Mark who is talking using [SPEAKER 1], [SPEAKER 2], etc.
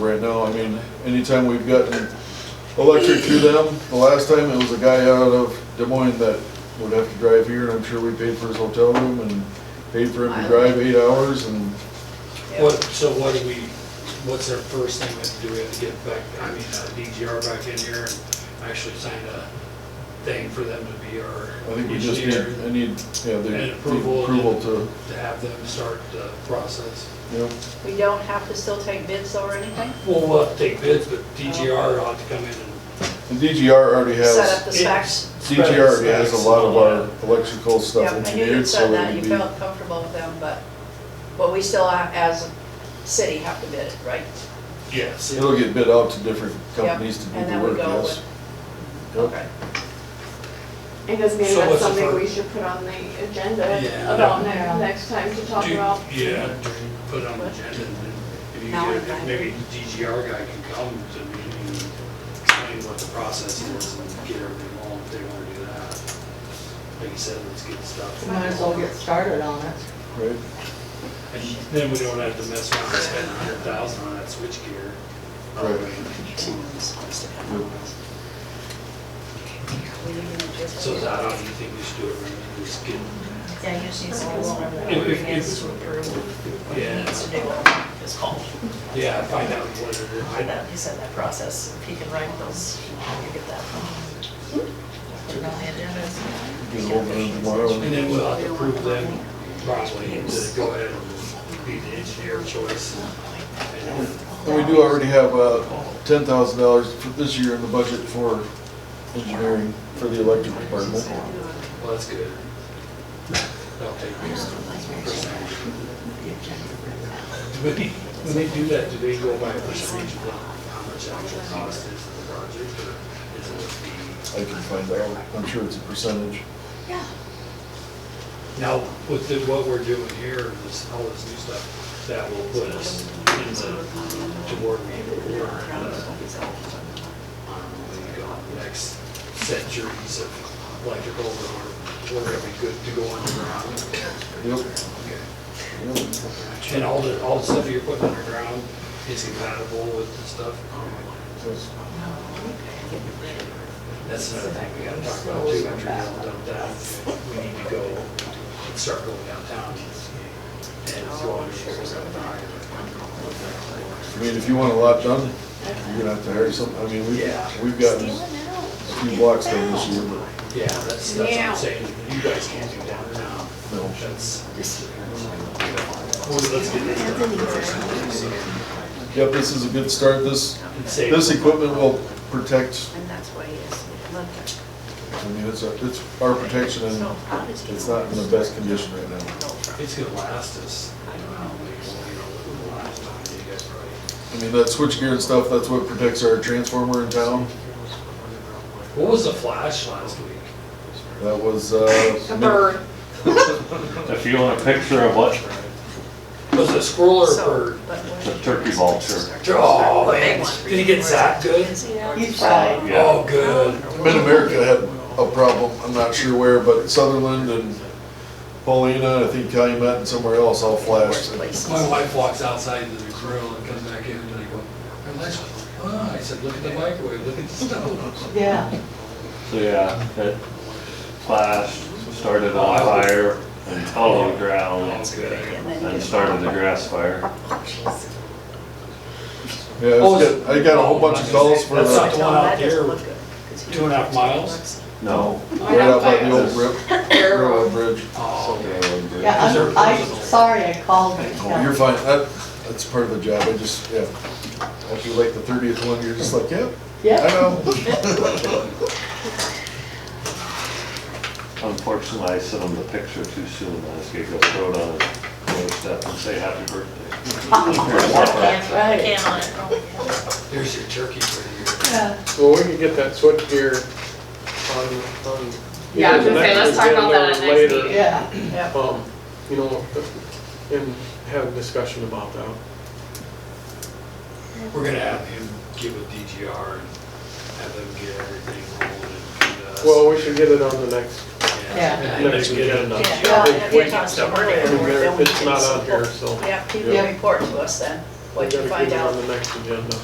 [SPEAKER 1] right now. I mean, anytime we've gotten electric through them, the last time it was a guy out of Des Moines that would have to drive here, and I'm sure we paid for his hotel room and paid for him to drive eight hours, and
[SPEAKER 2] What, so what do we, what's our first thing that do we have to get back, I mean, uh, DGR back in here and actually sign a thing for them to be our
[SPEAKER 1] I think we just need,
[SPEAKER 2] engineer,
[SPEAKER 1] I need, yeah, they
[SPEAKER 2] And
[SPEAKER 1] need
[SPEAKER 2] approval.
[SPEAKER 1] approval to,
[SPEAKER 2] to have them start the process?
[SPEAKER 1] you know,
[SPEAKER 3] We don't have to still take bids or anything?
[SPEAKER 2] Well, we'll have to take bids, but DGR ought to come in and.
[SPEAKER 1] and DGR already
[SPEAKER 3] Set up
[SPEAKER 1] has,
[SPEAKER 3] the specs?
[SPEAKER 1] DGR already has a lot of our electrical stuff
[SPEAKER 3] Yep, I knew you
[SPEAKER 1] engineered, so
[SPEAKER 3] said that,
[SPEAKER 1] they'd
[SPEAKER 3] you
[SPEAKER 1] be,
[SPEAKER 3] felt comfortable with them, but, but we still, uh, as a city, have to bid it, right?
[SPEAKER 2] Yes.
[SPEAKER 1] it'll get bid out to different companies to
[SPEAKER 3] Yep,
[SPEAKER 1] do
[SPEAKER 3] and
[SPEAKER 1] the
[SPEAKER 3] then we
[SPEAKER 1] work,
[SPEAKER 3] go
[SPEAKER 1] yes. Yep.
[SPEAKER 3] Okay.
[SPEAKER 4] And does maybe
[SPEAKER 2] So
[SPEAKER 4] that's
[SPEAKER 2] what's the
[SPEAKER 4] something
[SPEAKER 2] fir-
[SPEAKER 4] we should put on the agenda
[SPEAKER 2] Yeah.
[SPEAKER 4] about
[SPEAKER 3] Yeah.
[SPEAKER 4] ne- next time to talk
[SPEAKER 2] Do-
[SPEAKER 4] about?
[SPEAKER 2] Yeah, do you put it on the agenda and then if you
[SPEAKER 3] Now
[SPEAKER 2] get,
[SPEAKER 3] I'm
[SPEAKER 2] if maybe DGR guy can come to me and explain what the process is and get everything on if they wanna do that. Like you said, let's get stuff.
[SPEAKER 5] Might as well get started on it.
[SPEAKER 1] Right,
[SPEAKER 2] And then we don't have to mess around and spend a hundred thousand on that switchgear.
[SPEAKER 1] Yep.
[SPEAKER 2] So is that how you think we should do it, right? We just get,
[SPEAKER 6] Yeah, you just need some rules around
[SPEAKER 2] If- if-
[SPEAKER 6] ordinance to approve what he
[SPEAKER 2] Yeah.
[SPEAKER 6] needs to do, what it's called.
[SPEAKER 2] yeah, find out what it is. I-
[SPEAKER 6] That, he said that process, if he can write those, you get that.
[SPEAKER 3] Hmm?
[SPEAKER 6] Put it on the agenda.
[SPEAKER 1] get hold of them tomorrow.
[SPEAKER 2] And then we'll have to prove them probably and just go ahead and be the engineer choice. And then-
[SPEAKER 1] And we do already have uh, ten thousand dollars for this year in the budget for engineering for the electric department.
[SPEAKER 2] Well, that's good. That'll take me a percentage. Do they- When they do that, do they go by a percentage of how much actual cost is of the project, or is it a fee?
[SPEAKER 1] I can find out, I'm sure it's a percentage.
[SPEAKER 2] Now, with the- what we're doing here, this, all this new stuff, that will put us in the, toward me, or, um, next centuries of electrical, or we're gonna be good to go underground.
[SPEAKER 1] Yep.
[SPEAKER 2] And all the, all the stuff you're putting underground is compatible with the stuff? That's another thing we gotta talk about too, after we're done with that. We need to go and start going downtown and go on to the
[SPEAKER 1] I mean, if you want a lot done, you're gonna have to hire some, I mean, we've,
[SPEAKER 2] Yeah.
[SPEAKER 1] we've gotten a few blocks done this year, but
[SPEAKER 2] Yeah, that's, that's what I'm saying, you guys can't do downtown.
[SPEAKER 1] no.
[SPEAKER 2] That's. Well, let's get this done first.
[SPEAKER 1] Yep, this is a good start, this,
[SPEAKER 2] And save-
[SPEAKER 1] this equipment will protect,
[SPEAKER 3] And that's why he is, look,
[SPEAKER 1] I mean, it's, a- it's our protection
[SPEAKER 3] so
[SPEAKER 1] and
[SPEAKER 3] how does he?
[SPEAKER 1] it's not in the best condition right now.
[SPEAKER 2] It's gonna last us, I don't know, how many, you know, the last time you guys probably.
[SPEAKER 1] I mean, that switchgear and stuff, that's what protects our transformer in town.
[SPEAKER 2] What was the flash last week?
[SPEAKER 1] That was, uh.
[SPEAKER 4] A bird,
[SPEAKER 7] If you want a picture of what
[SPEAKER 2] Was it a squirrel or a
[SPEAKER 3] So,
[SPEAKER 2] bird?
[SPEAKER 3] but what-
[SPEAKER 7] the turkey vulture,
[SPEAKER 2] Oh, man, did he get zapped good?
[SPEAKER 4] yeah.
[SPEAKER 5] You try.
[SPEAKER 7] yeah,
[SPEAKER 2] Oh, good.
[SPEAKER 1] Mid-America had a problem, I'm not sure where, but Sutherland and Paulina, I think Calumet and somewhere else all flashed.
[SPEAKER 2] My wife walks outside to the grill and comes back in and I go, "Our lights are on." Ah, I said, look at the microwave, look at the stove.
[SPEAKER 5] Yeah.
[SPEAKER 7] so yeah, it flashed, started on fire and fell on the
[SPEAKER 2] Oh,
[SPEAKER 7] ground
[SPEAKER 2] good.
[SPEAKER 7] and started the grass fire.
[SPEAKER 1] Yeah, I was- I got a whole bunch of calls for,
[SPEAKER 2] Oh,
[SPEAKER 1] uh,
[SPEAKER 2] That's not
[SPEAKER 1] the-
[SPEAKER 2] the one out there, two
[SPEAKER 3] Two
[SPEAKER 2] and a half miles?
[SPEAKER 7] No,
[SPEAKER 1] right out by the old rip, railroad bridge.
[SPEAKER 2] Oh, okay.
[SPEAKER 5] Yeah, I'm, I'm sorry I called you.
[SPEAKER 1] Oh, You're fine, that, that's part of the job, I just, yeah. After like the thirtieth one, you're just like, yep, I
[SPEAKER 5] Yeah.
[SPEAKER 1] know.
[SPEAKER 7] unfortunately, I sent him the picture too soon. I just gave a throw on his doorstep and say happy birthday.
[SPEAKER 6] Can on it.
[SPEAKER 2] There's your turkey for you.
[SPEAKER 5] Yeah.
[SPEAKER 8] Well, we can get that switchgear on, on.
[SPEAKER 4] Yeah, I was gonna say, let's talk about that at
[SPEAKER 8] either
[SPEAKER 4] next
[SPEAKER 8] agenda or later,
[SPEAKER 4] meeting.
[SPEAKER 5] Yeah.
[SPEAKER 8] Um, you know, and have a discussion about that.
[SPEAKER 2] We're gonna have him give a DGR and have them get everything rolling and do this.
[SPEAKER 8] Well, we should get it on the next,
[SPEAKER 5] Yeah.
[SPEAKER 2] And then
[SPEAKER 8] Next uh,
[SPEAKER 2] get a
[SPEAKER 8] agenda.
[SPEAKER 2] DGR.
[SPEAKER 8] Yeah.
[SPEAKER 3] Yeah, and if
[SPEAKER 8] Wait,
[SPEAKER 3] it comes to
[SPEAKER 8] I mean,
[SPEAKER 3] earlier,
[SPEAKER 8] there-
[SPEAKER 3] then we
[SPEAKER 8] it's
[SPEAKER 3] can
[SPEAKER 8] not
[SPEAKER 3] s-
[SPEAKER 8] out here, so.
[SPEAKER 3] Yeah, people
[SPEAKER 5] Yeah.
[SPEAKER 3] report to us then. What'd you
[SPEAKER 8] Gotta
[SPEAKER 3] find
[SPEAKER 8] get it
[SPEAKER 3] out?
[SPEAKER 8] On the next agenda.